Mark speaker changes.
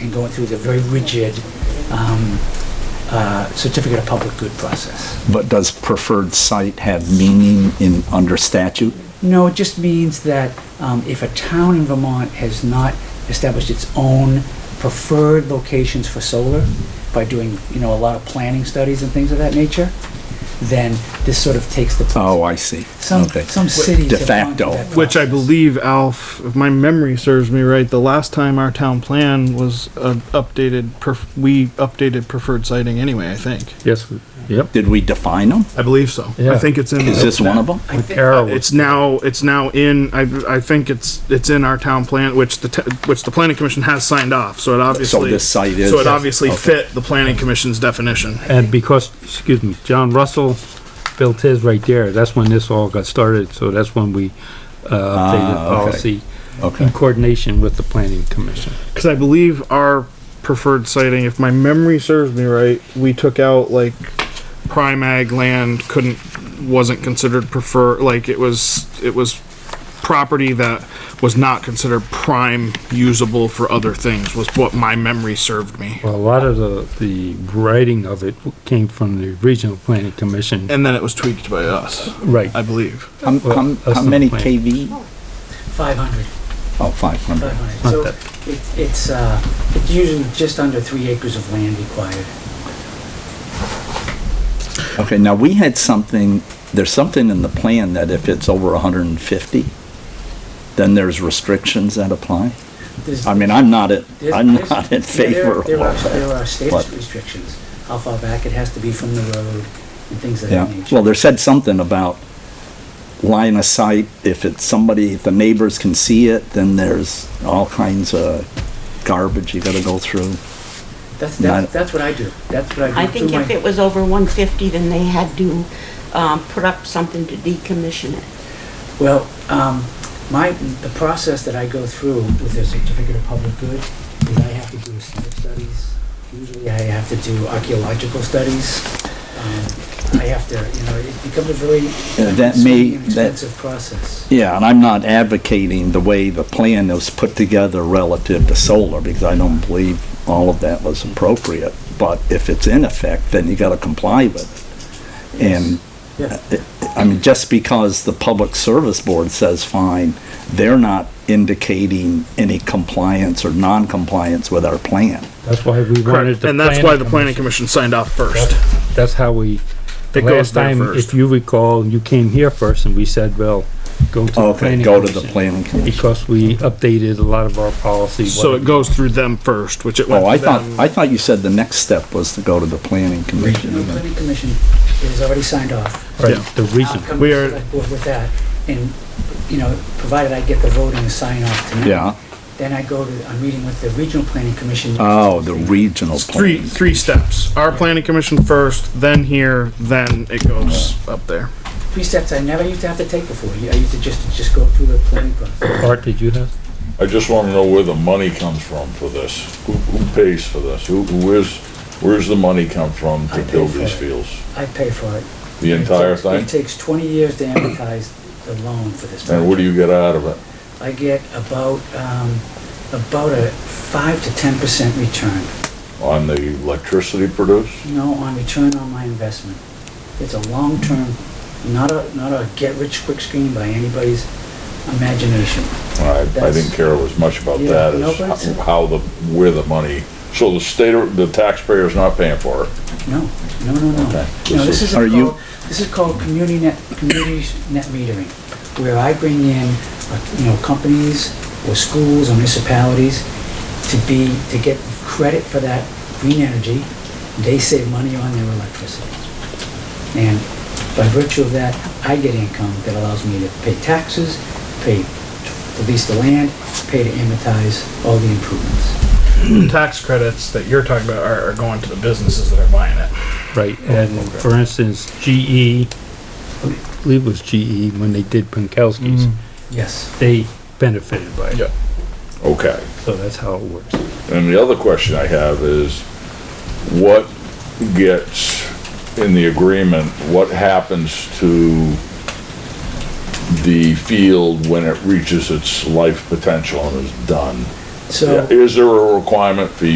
Speaker 1: and going through the very rigid um, uh, certificate of public good process.
Speaker 2: But does preferred site have meaning in, under statute?
Speaker 1: No, it just means that um, if a town in Vermont has not established its own preferred locations for solar by doing, you know, a lot of planning studies and things of that nature, then this sort of takes the place.
Speaker 2: Oh, I see.
Speaker 1: Some,
Speaker 2: Okay.
Speaker 1: some cities
Speaker 2: De
Speaker 1: have gone through
Speaker 2: facto.
Speaker 1: that
Speaker 3: Which I
Speaker 1: process.
Speaker 3: believe, Alf, if my memory serves me right, the last time our town plan was uh, updated, pref- we updated preferred sighting anyway, I think.
Speaker 4: Yes, we- yep.
Speaker 2: Did we define them?
Speaker 3: I believe so. I
Speaker 4: Yeah.
Speaker 3: think it's in. uh,
Speaker 2: Is this one of them?
Speaker 1: I thi-
Speaker 4: Arrow
Speaker 3: It's now, it's now in, I, I think it's, it's in our town plan, which the, te- which the planning commission has signed off, so it obviously.
Speaker 2: this site is-
Speaker 3: So it obviously
Speaker 2: Okay.
Speaker 3: fit the planning commission's definition.
Speaker 4: And because, excuse me, John Russell built his right there, that's when this all got started, so that's when we uh, updated
Speaker 2: Ah,
Speaker 4: the
Speaker 2: okay.
Speaker 4: policy in
Speaker 2: Okay.
Speaker 4: coordination with the planning commission.
Speaker 3: Because I believe our preferred sighting, if my memory serves me right, we took out like prime ag land couldn't wasn't considered prefer like it was it was property that was not considered prime usable for other things was what my memory served me.
Speaker 4: Well, a lot of the, the writing of it came from the regional planning commission,
Speaker 3: And then it was tweaked by us,
Speaker 4: right?
Speaker 3: I believe.
Speaker 2: How,
Speaker 4: Well,
Speaker 2: how,
Speaker 4: that's
Speaker 2: how
Speaker 4: the
Speaker 2: many
Speaker 4: plan.
Speaker 2: KV?
Speaker 1: 500.
Speaker 2: Oh, 500.
Speaker 1: 500. So it- it's, uh, it's usually just under three acres of land required.
Speaker 2: Okay, now we had something, there's something in the plan that if it's over 150, then there's restrictions that apply?
Speaker 1: There's-
Speaker 2: I mean, I'm not, at-
Speaker 1: there's-
Speaker 2: I'm
Speaker 1: there's-
Speaker 2: not in
Speaker 1: yeah, there-
Speaker 2: favor of
Speaker 1: There
Speaker 2: all
Speaker 1: are, there
Speaker 2: that.
Speaker 1: are status
Speaker 2: but-
Speaker 1: restrictions, how far back it has to be from the road and things of that
Speaker 2: Yeah,
Speaker 1: nature.
Speaker 2: well, there said something about line of sight, if it's somebody, if the neighbors can see it, then there's all kinds of garbage you gotta go through.
Speaker 1: That's, that's,
Speaker 2: not-
Speaker 1: that's what I do, that's what I do.
Speaker 5: I
Speaker 1: through
Speaker 5: think if
Speaker 1: my-
Speaker 5: it was over 150, then they had to um, put up something to decommission it.
Speaker 1: Well, um, my, the process that I go through with a certificate of public good is I have to do site studies. Usually I have to do archaeological studies. Um, I have to, you know, it becomes a very
Speaker 2: Yeah, Uh, that
Speaker 1: time-consuming
Speaker 2: may-
Speaker 1: and
Speaker 2: that-
Speaker 1: expensive process.
Speaker 2: Yeah, and I'm not advocating the way the plan was put together relative to solar, because I don't believe all of that was appropriate. But if it's in effect, then you gotta comply with it. And, uh,
Speaker 1: Yeah,
Speaker 2: I mean, just because the Public Service Board says fine, they're not indicating any compliance or non-compliance with our plan.
Speaker 4: That's why we wanted
Speaker 3: Correct.
Speaker 4: the.
Speaker 3: And that's why the planning commission signed off first.
Speaker 4: commission- That's how we, the
Speaker 3: It goes
Speaker 4: last
Speaker 3: there
Speaker 4: time,
Speaker 3: first.
Speaker 4: if you recall, you came here first and we said, well, go to the
Speaker 2: Okay,
Speaker 4: planning
Speaker 2: go to the
Speaker 4: commission.
Speaker 2: planning commission.
Speaker 4: Because we updated a lot of our policies.
Speaker 3: So it goes through them first, which it went.
Speaker 2: Oh, I
Speaker 3: through
Speaker 2: thought,
Speaker 3: them.
Speaker 2: I thought you said the next step was to go to the planning
Speaker 1: Regional
Speaker 2: commission.
Speaker 1: Planning Commission is already signed off.
Speaker 4: Right,
Speaker 3: Yeah.
Speaker 4: the
Speaker 1: I'll
Speaker 4: region.
Speaker 1: come
Speaker 3: We
Speaker 1: to the
Speaker 3: are-
Speaker 1: select board with that, and, you know, provided I get the vote and the sign off tonight.
Speaker 2: Yeah,
Speaker 1: Then I go to, I'm meeting with the Regional Planning Commission.
Speaker 6: Uh.
Speaker 2: oh, the regional
Speaker 3: Three,
Speaker 2: plan.
Speaker 3: three steps. Our planning commission first, then here, then it goes up there.
Speaker 1: precepts I never used to have to take before. I used to just, just go through the planning process.
Speaker 4: Art, did you have?
Speaker 6: I just want to know where the money comes from for this. Who, who pays for this? Who, where's, where's the money come from
Speaker 1: I
Speaker 6: to
Speaker 1: pay
Speaker 6: build
Speaker 1: for
Speaker 6: these
Speaker 1: it.
Speaker 6: fields?
Speaker 1: I pay for it.
Speaker 6: The entire
Speaker 1: It takes-
Speaker 6: thing?
Speaker 1: It takes twenty years to amortize the loan for this.
Speaker 6: And what do you get out of it?
Speaker 1: project. I get about, um, about a five to ten percent return,
Speaker 6: On the electricity produced?
Speaker 1: you know, on return on my investment. It's a long-term, not a, not a get-rich-quick scheme by anybody's imagination.
Speaker 6: I, I
Speaker 1: That's-
Speaker 6: didn't care as much about
Speaker 1: Yeah,
Speaker 6: that
Speaker 1: no,
Speaker 6: as
Speaker 1: but it's-
Speaker 6: ho- how the, where the money, so the state, or- the taxpayer's not paying for it?
Speaker 1: No, no, no, no.
Speaker 6: Okay.
Speaker 1: No, this
Speaker 6: This is-
Speaker 1: is
Speaker 2: Are you-
Speaker 1: called, this is called community net, community net metering, where I bring in, uh, you know, companies or schools or municipalities to be, to get credit for that green energy. They save money on their electricity. And by virtue of that, I get income that allows me to pay taxes, pay, to lease the land, pay to amortize all the improvements.
Speaker 3: tax credits that you're talking about are, are going to the businesses that are buying it.
Speaker 4: Right, and for instance, GE, I believe it was GE when they did
Speaker 3: Mm.
Speaker 4: Pankowski's,
Speaker 1: Yes.
Speaker 4: they benefited by it.
Speaker 3: Yeah.
Speaker 6: Okay.
Speaker 4: So that's how it works.
Speaker 6: And the other question I have is, what gets in the agreement, what happens to the field when it reaches its life potential and is done?
Speaker 1: So.
Speaker 6: Is there a requirement for you?